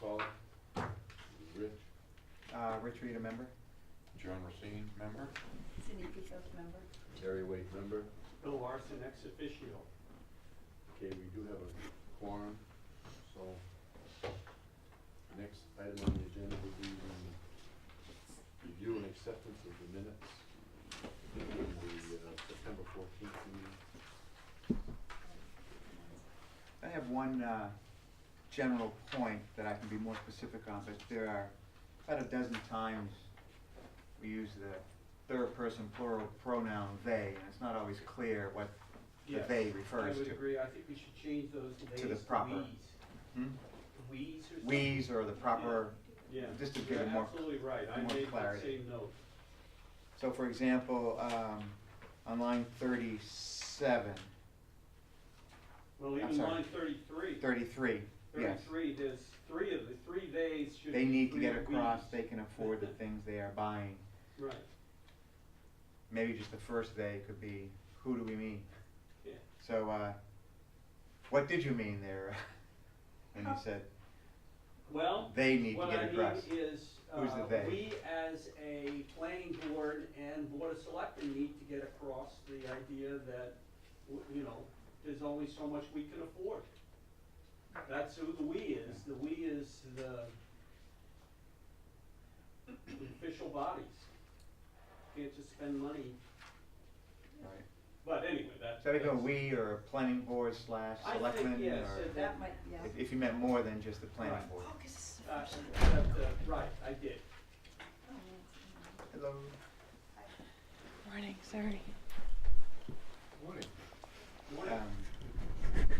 call it. Rich, Uh, Rich Reed, a member? John Racine, member, Cindy Picos, member. Terry Wade, member. Bill Larson, ex officio. Okay, we do have a quorum, so next item on the agenda would be the review and acceptance of the minutes in the uh, September fourteenth meeting. I have one uh, general point that I can be more specific on, but there are about a dozen times we use the third person plural pronoun they, and it's not always clear what the Yes, they refers I would to. agree, I think we should change those days the to proper. we's. Hmm? We's or something? We's or the proper, Yeah, just to give you're it more- absolutely right, I more made that clarity. same note. so for example, um, on line thirty-seven, Well, I'm even sorry. line thirty-three, thirty-three, yes. thirty-three, there's three of the, three days should They be need to three get across, we's. they can afford the things they are buying. Right, maybe just the first they could be, who do we mean? Yeah. So, uh, what did you mean there? when you said well, they need to what get I mean across. is, Who's the uh, they? we as a planning board and board of selectmen need to get across the idea that, w- you know, there's only so much we can afford. That's who the we is, the we is the official bodies. Can't just spend money, Right. but anyway, that's. So I think a that's- we or a planning board slash I think, selectmen or yes, it- That might, yeah. if, if you meant more than just the planning Right. board. Oh, 'cause it's Uh, official. that, uh, right, I did. Oh, yeah. Hello. Morning, sorry. Morning. Morning. Um,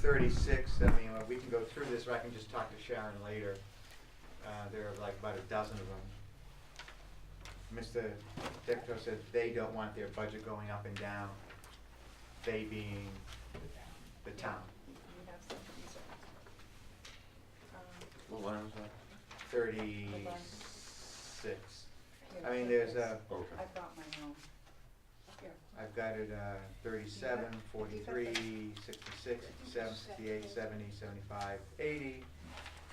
Thirty-six. I mean, uh, we can go through this, or I can just talk to Sharon later. Uh, there are like about a dozen of them. Mr. Decto said they don't want their budget going up and down, they being the town. We have some concerns. Um, What line was that? Thirty-six. here, I mean, there's uh, a, Okay. I brought my own. Here. I've got it, uh, thirty-seven, forty-three, sixty-six, sixty-seven, sixty-eight, seventy, seventy-five, eighty.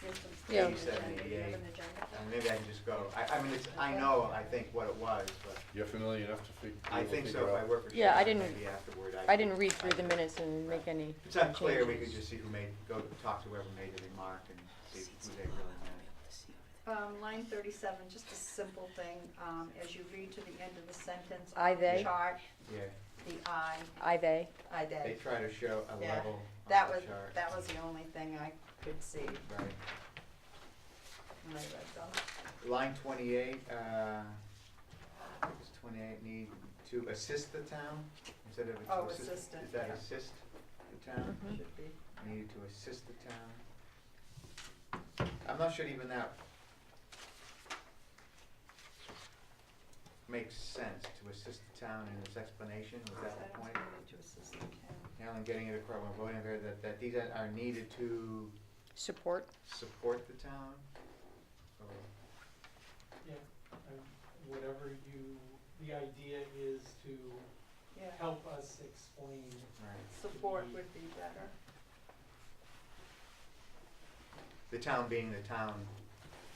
Here's some stuff. Yeah. on the agenda. Do you have 88. an agenda? And maybe I can just go, I, I mean, it's, I know, I think what it was, but You're familiar enough to fig- be I able to think figure so if I out? work for Yeah, I Sharon, didn't- maybe afterward I didn't I read through the can- minutes and make any If It's unclear, we could changes. just see who made, go talk to whoever made the remark and see who they really meant. Um, line thirty-seven, just a simple thing, um, as you read to the end of the sentence. I, on the they. Chart, Yeah, the I, I, they. I, they they. try to show a Yeah, level That on the was, chart. that was the only thing I could see Right. when I read them. Line twenty-eight, uh, I think it's twenty-eight, need to assist the town instead of Oh, to assist. assistant, Is that yeah. assist the town? Mhm. Should be. Needed to assist the town. I'm not sure even that makes sense, to assist the town in its explanation, was that the point? To assist the town. Alan, getting it across, we're voting here that, that these are are needed to Support. support the town? Oh, Or Yeah, and whatever you, the idea is to Yeah, help us explain. Right, support would be better. the town being the town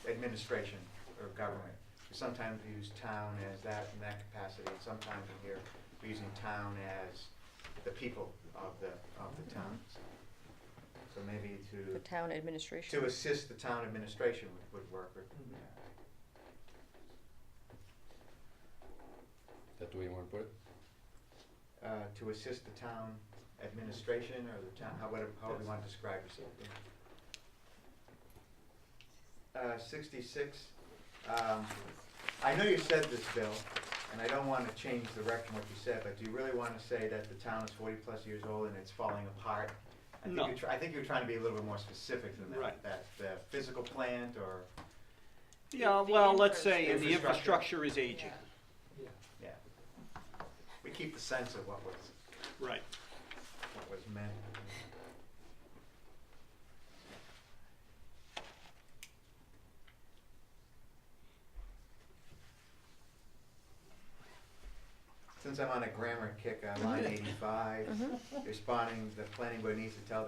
administration or government. Sometimes we use town as that in that capacity, and sometimes we hear we're using town as the people of the, of the town. So maybe to, The town administration. to assist the town administration would, would work, or That the way you wanna put it? uh, to assist the town administration or the town, however, however you want to describe yourself. yeah. Uh, sixty-six, um, I know you said this, Bill, and I don't wanna change the record what you said, but do you really wanna say that the town is forty-plus years old and it's falling apart? I think No. you're try- I think you're trying to be a little bit more specific than that, Right. that the physical plant or, Yeah, The well, let's infra- say the Infrastructure. infrastructure is aging, Yeah. Yeah, yeah. We keep the sense of what was, right. what was meant. Since I'm on a grammar kick, on line eighty-five, responding, the planning board needs to tell the